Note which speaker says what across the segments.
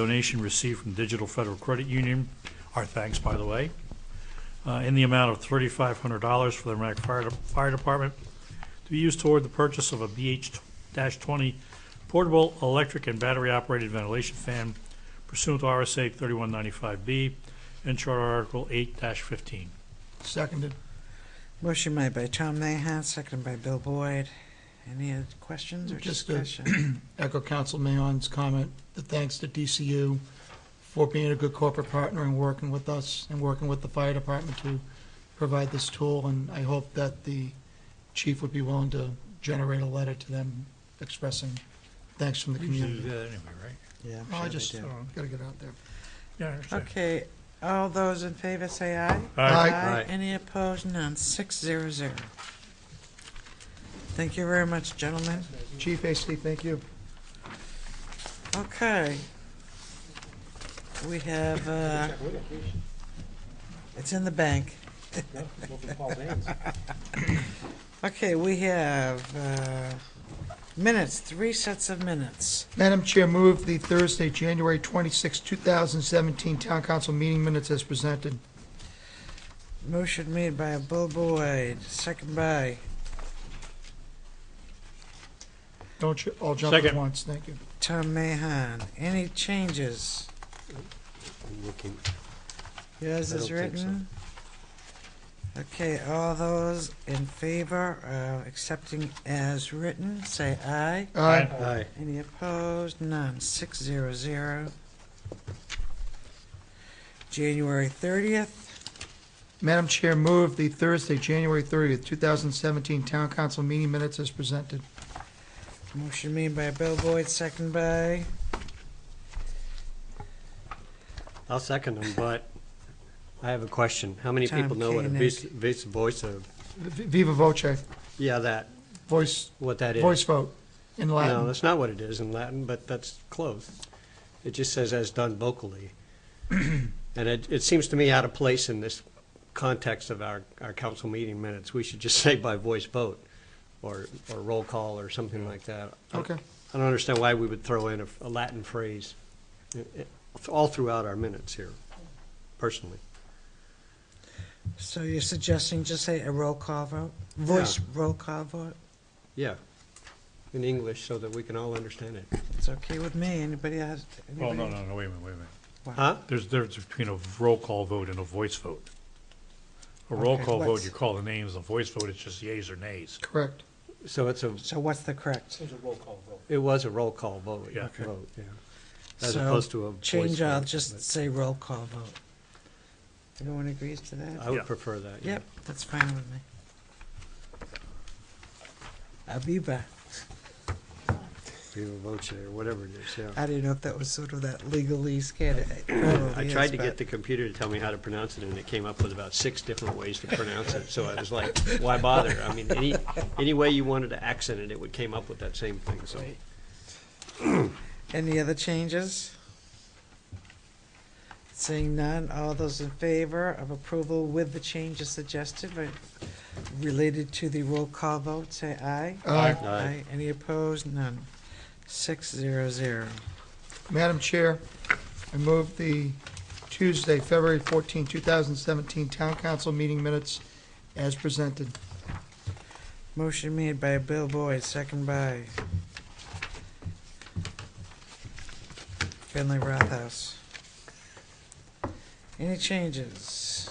Speaker 1: donation received from Digital Federal Credit Union, our thanks, by the way, uh, in the amount of $3,500 for the Merrimack Fire De- Fire Department to be used toward the purchase of a BH-20 portable electric and battery-operated ventilation fan pursuant to RSA 3195B and Charter Article 8-15.
Speaker 2: Seconded.
Speaker 3: Motion made by Tom Mahan, seconded by Bill Boyd. Any other questions or
Speaker 2: Just a-
Speaker 3: discussion?
Speaker 2: Echo Council Mayon's comment, the thanks to DCU for being a good corporate partner and working with us and working with the fire department to provide this tool. And I hope that the chief would be willing to generate a letter to them expressing thanks from the
Speaker 1: Usually do
Speaker 2: community.
Speaker 1: that anyway, right?
Speaker 3: Yeah,
Speaker 2: Oh, I
Speaker 3: I'm
Speaker 2: just,
Speaker 3: sure they do.
Speaker 2: got to get out there.
Speaker 1: Yeah, I understand.
Speaker 3: Okay, all those in favor say aye.
Speaker 1: Aye.
Speaker 2: Aye.
Speaker 3: Any opposed? None. Six zero zero. Thank you very much, gentlemen.
Speaker 2: Chief Hasty, thank you.
Speaker 3: Okay. We have, uh, it's in the bank. Okay, we have, uh, minutes, three sets of minutes.
Speaker 2: Madam Chair, move the Thursday, January 26, 2017 Town Council meeting minutes as presented.
Speaker 3: Motion made by Bill Boyd, second by,
Speaker 2: Don't you all jump at
Speaker 1: Second.
Speaker 2: once, thank you.
Speaker 3: Tom Mahan. Any changes?
Speaker 4: I'm looking,
Speaker 3: Yours
Speaker 4: I
Speaker 3: is
Speaker 4: don't think so.
Speaker 3: written? Okay, all those in favor of accepting as written, say aye.
Speaker 2: Aye.
Speaker 4: aye,
Speaker 3: Any opposed? None. Six zero zero. January thirtieth,
Speaker 2: Madam Chair, move the Thursday, January 30th, 2017 Town Council meeting minutes as presented.
Speaker 3: motion made by Bill Boyd, second by,
Speaker 4: I'll second them, but I have a question. How many
Speaker 3: Tom
Speaker 4: people know what a
Speaker 3: Koenig.
Speaker 4: vis, vis voice of,
Speaker 2: V- Viva voce,
Speaker 4: yeah, that,
Speaker 2: voice,
Speaker 4: what that is?
Speaker 2: voice vote in
Speaker 4: No,
Speaker 2: Latin.
Speaker 4: that's not what it is in Latin, but that's close. It just says as done vocally. And it, it seems to me out of place in this context of our, our council meeting minutes. We should just say by voice vote or, or roll call or something like that. I-
Speaker 2: Okay,
Speaker 4: I don't understand why we would throw in a, a Latin phrase i- i- all throughout our minutes here, personally.
Speaker 3: so you're suggesting just say a roll call vote? Voice roll call vote?
Speaker 4: Yeah, in English so that we can all understand it.
Speaker 3: It's okay with me. Anybody has?
Speaker 4: Oh,
Speaker 1: Well, Oh, no,
Speaker 3: anybody-
Speaker 1: no, no, wait a minute, wait a minute.
Speaker 4: Huh?
Speaker 1: There's a difference between a roll call vote and a voice vote. A roll
Speaker 3: Okay,
Speaker 1: call vote,
Speaker 3: what's-
Speaker 1: you call the names, a voice vote, it's just yeas or nays.
Speaker 2: correct.
Speaker 4: So it's a,
Speaker 3: So what's the correct?
Speaker 4: it was a roll call vote.
Speaker 1: Yeah. Okay.
Speaker 4: Vote, yeah. As
Speaker 3: So,
Speaker 4: opposed to a voice
Speaker 3: Change, I'll
Speaker 4: vote,
Speaker 3: just
Speaker 4: but
Speaker 3: say roll call vote. Everyone agrees to that?
Speaker 4: I
Speaker 1: Yeah.
Speaker 4: would prefer that, Uh, yeah.
Speaker 3: Yep, that's fine with me. Abiba,
Speaker 4: Viva voce or whatever it is, yeah.
Speaker 3: I didn't know if that was sort of that legalese kid.
Speaker 4: I tried to get the computer to tell me how to pronounce it, and it came up with about six different ways to pronounce it. So I was like, why bother? I mean, any, any way you wanted to accent it, it would came up with that same thing, so.
Speaker 3: Any other changes? Seeing none, all those in favor of approval with the changes suggested, but related to the roll call vote, say aye.
Speaker 2: Aye.
Speaker 4: Aye.
Speaker 3: Any opposed? None. Six zero zero.
Speaker 2: Madam Chair, I move the Tuesday, February 14, 2017 Town Council meeting minutes as presented.
Speaker 3: Motion made by Bill Boyd, second by Finley Rothaus. Any changes?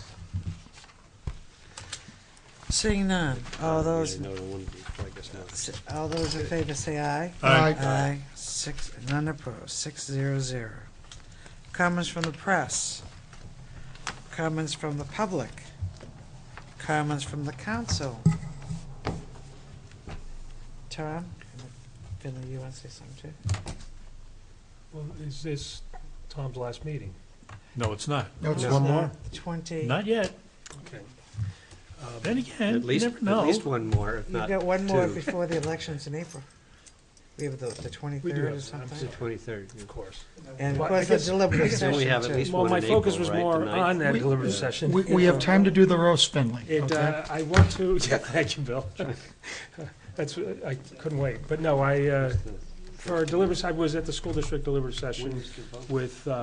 Speaker 3: Seeing none, all Oh, those,
Speaker 4: Um, No, it wouldn't be, I guess not.
Speaker 3: all those in favor say aye.
Speaker 1: Aye.
Speaker 3: Aye, six, none opposed, six zero zero. Comments from the press, comments from the public, comments from the council. Tom, Finley, you want to say something too?
Speaker 5: Well, is this Tom's last meeting?
Speaker 1: No, it's not.
Speaker 2: No, it's
Speaker 4: No.
Speaker 2: one
Speaker 3: Uh,
Speaker 2: more.
Speaker 3: Twenty,
Speaker 1: Not yet. Um,
Speaker 5: Okay.
Speaker 1: Then again,
Speaker 4: At
Speaker 1: you
Speaker 4: least,
Speaker 1: never
Speaker 4: at
Speaker 1: know.
Speaker 4: least one more, if
Speaker 3: you've
Speaker 4: not
Speaker 3: got one more
Speaker 4: two.
Speaker 3: before the elections in April. We have the, the twenty-third
Speaker 5: have
Speaker 3: or
Speaker 5: that. I'm
Speaker 4: It's the
Speaker 3: something,
Speaker 4: twenty-third.
Speaker 5: Of course.
Speaker 3: and of
Speaker 5: Well, I
Speaker 3: course, the
Speaker 5: guess-
Speaker 3: deliberative
Speaker 4: Then we have at
Speaker 3: session
Speaker 4: least
Speaker 3: too.
Speaker 5: Well,
Speaker 4: one
Speaker 5: my
Speaker 4: in
Speaker 5: focus
Speaker 4: April,
Speaker 5: was
Speaker 4: right, the
Speaker 5: more
Speaker 4: ninth?
Speaker 5: on that
Speaker 2: We-
Speaker 5: deliberative session.
Speaker 2: We, we have time to do the roast, Finley,
Speaker 5: It,
Speaker 2: okay?
Speaker 5: uh, I want to, yeah, thank you, Bill. That's, I couldn't wait, but no, I, uh,
Speaker 1: for our deliberative, I was at the school district deliberative session with uh,